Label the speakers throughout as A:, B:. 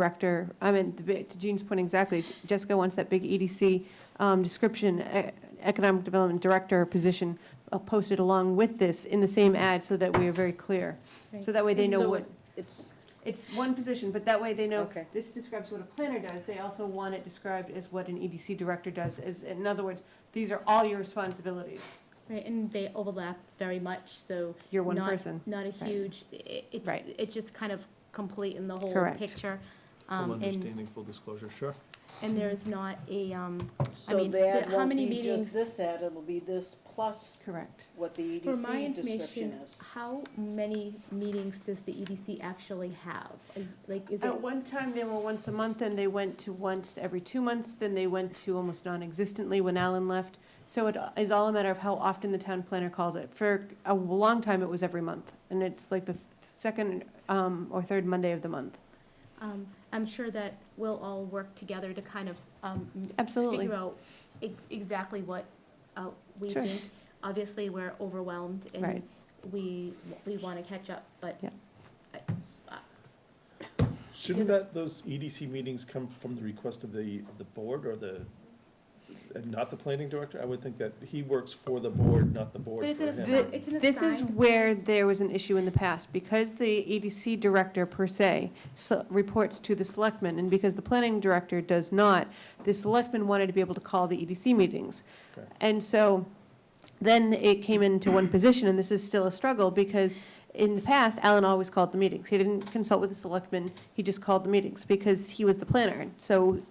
A: director, I mean, the big- to Jean's point exactly, Jessica wants that big EDC um, description, e- economic development director position uh, posted along with this in the same ad so that we are very clear. So that way they know
B: So
A: what,
B: It's,
A: it's one position, but that way they know,
B: Okay.
A: this describes what a planner does. They also want it described as what an EDC director does, is, in other words, these are all your responsibilities.
C: Right, and they overlap very much, so
A: You're one
C: not,
A: person.
C: not a
A: Right.
C: huge, i- it's,
A: Right.
C: it's just kind of complete in the whole
A: Correct.
C: picture.
D: Full
C: Um, and,
D: understanding, full disclosure, sure.
C: and there is not a, um,
B: so
C: mean,
B: the
C: the-
B: ad
C: how
B: won't
C: many
B: be
C: meetings-
B: just this ad, it'll be this plus
A: Correct.
B: what the
C: for my
B: EDC description
C: information,
B: is.
C: how many meetings does the EDC actually have? Like- Like, is it,
A: At one time, they were once a month, and they went to once every two months, then they went to almost non-existently when Alan left. So it is all a matter of how often the town planner calls it. For a long time, it was every month, and it's like the second um, or third Monday of the month.
C: um, I'm sure that we'll all work together to kind of, um, m-
A: Absolutely.
C: figure out e- exactly what, uh, we
A: Sure.
C: think. Obviously, we're overwhelmed and
A: Right.
C: we, we wanna catch up, but
A: Yeah.
D: Shouldn't that, those EDC meetings come from the request of the, of the board or the, and not the planning director? I would think that he works for the board, not the board
C: But it's
D: for
C: an
D: him.
C: assi- it's an assigned.
A: This is where there was an issue in the past, because the EDC director per se se- reports to the selectmen, and because the planning director does not, the selectmen wanted to be able to call the EDC meetings.
D: Correct.
A: And so, then it came into one position, and this is still a struggle, because in the past, Alan always called the meetings. He didn't consult with the selectmen, he just called the meetings, because he was the planner. So,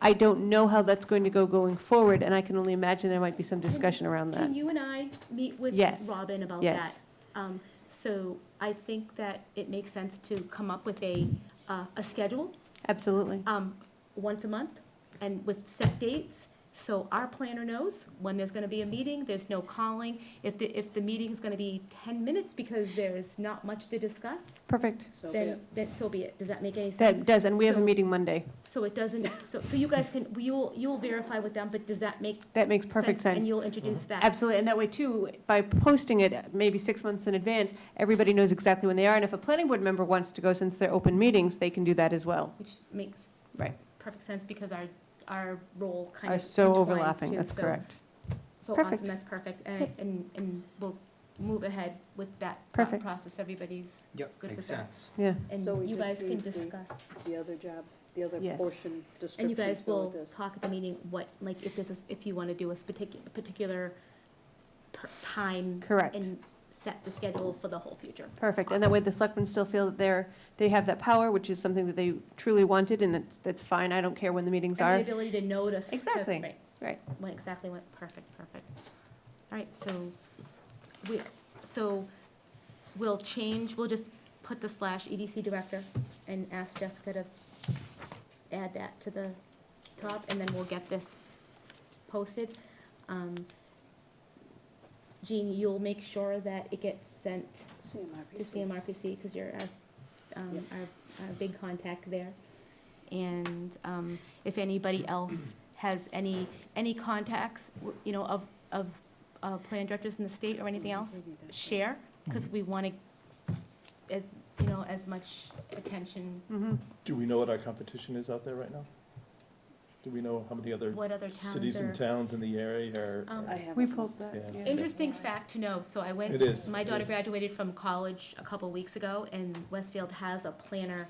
A: I don't know how that's going to go going forward, and I can only imagine there might be some discussion around that.
C: Can you and I meet with
A: Yes.
C: Robin about that?
A: Yes.
C: Um, so I think that it makes sense to come up with a, uh, a schedule,
A: Absolutely.
C: um, once a month and with set dates. So our planner knows when there's gonna be a meeting, there's no calling. If the, if the meeting's gonna be ten minutes because there's not much to discuss,
A: Perfect.
B: So the-
C: then, then so be it. Does that make any sense?
A: That does, and we have a
C: So-
A: meeting Monday.
C: So it doesn't, so, so you guys can, you'll, you'll verify with them, but does that make
A: That makes perfect
C: And
A: sense.
C: you'll introduce that?
A: Absolutely, and that way too, by posting it maybe six months in advance, everybody knows exactly when they are, and if a planning board member wants to go, since they're open meetings, they can do that as well.
C: Which makes
A: Right.
C: perfect sense because our, our role kind of.
A: Are so
C: intertwines
A: overlapping,
C: too,
A: that's
C: so-
A: correct.
C: So
A: Perfect.
C: awesome, that's perfect. And, and, and we'll move ahead with that thought
A: Perfect.
C: process. Everybody's
E: Yep,
C: good
E: makes
C: with that.
E: sense.
A: Yeah,
C: And
B: So we
C: you
B: just
C: guys can
B: need the-
C: discuss,
B: The other job, the other
A: Yes.
B: portion
C: and
B: description
C: you guys
B: go
C: will
B: with this.
C: talk at the meeting what, like, if this is, if you want to do a particular, particular per- time.
A: Correct.
C: And set the schedule for the whole future.
A: perfect, and that way the selectmen still feel that they're, they have that power, which is something that they truly wanted, and that's, that's fine, I don't care when the meetings
C: And the
A: are.
C: ability to notice. to-
A: Exactly,
C: right,
A: right.
C: When exactly what, perfect, perfect. All right, so we, so we'll change, we'll just put the slash EDC director and ask Jessica to add that to the top, and then we'll get this posted. Um, Jean, you'll make sure that it gets sent to
B: CMRPC.
C: CMRPC, because you're our, um, our, our big contact there. And, um, if anybody else has any, any contacts, w- you know, of, of, uh, plan directors in the state or anything else,
B: Maybe that's it.
C: share, because
D: Mm-hmm.
C: we want to, as, you know, as much attention,
A: Mhm.
D: Do we know what our competition is out there right now? Do we know how many other
C: what other
D: cities
C: towns
D: and
C: are.
D: towns in the area are?
C: Um,
B: I
D: are-
B: haven't.
A: We pulled that,
D: Yeah.
A: yeah.
C: Interesting fact to know, so I went.
D: It is,
C: My
D: it
C: daughter
D: is.
C: graduated from college a couple weeks ago, and Westfield has a planner,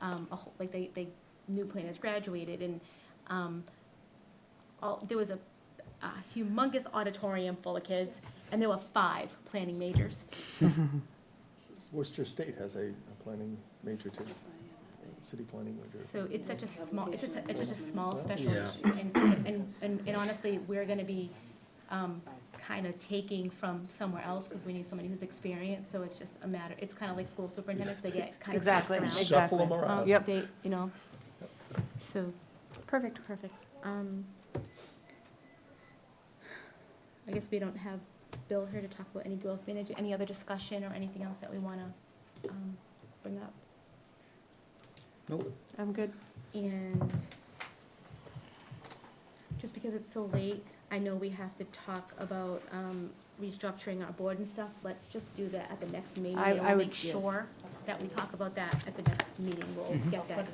C: um, a whole, like, they, they, new planners graduated, and, um, all, there was a, a humongous auditorium full of kids, and there were five planning majors.
D: Worcester State has a a planning major
B: uh,
D: too, city planning major.
C: So it's such a small, it's just, a- it's just a small special
E: Yeah.
C: issue, and, and, and and honestly, we're gonna be, um,
B: uh,
C: kind of taking from somewhere else, because we need somebody who's experienced, so it's just a matter, it's kind of like school superintendents, they get kind of passed
A: Exactly.
C: around.
A: Exactly.
D: Shuffle them
C: Um,
D: around.
A: Yep.
C: They, you know, so,
A: Perfect.
C: perfect. Um, I guess we don't have Bill here to talk about any growth manager, any other discussion or anything else that we want to, um, bring up.
A: I'm good.
C: And just because it's so late, I know we have to talk about, um, restructuring our board and stuff. Let's just do that at the next meeting.
A: I-
C: and
A: I
C: we'll
A: would-
C: Make
A: yes.
C: sure that we talk about that at the next meeting, we'll
E: Mhm.
C: get that.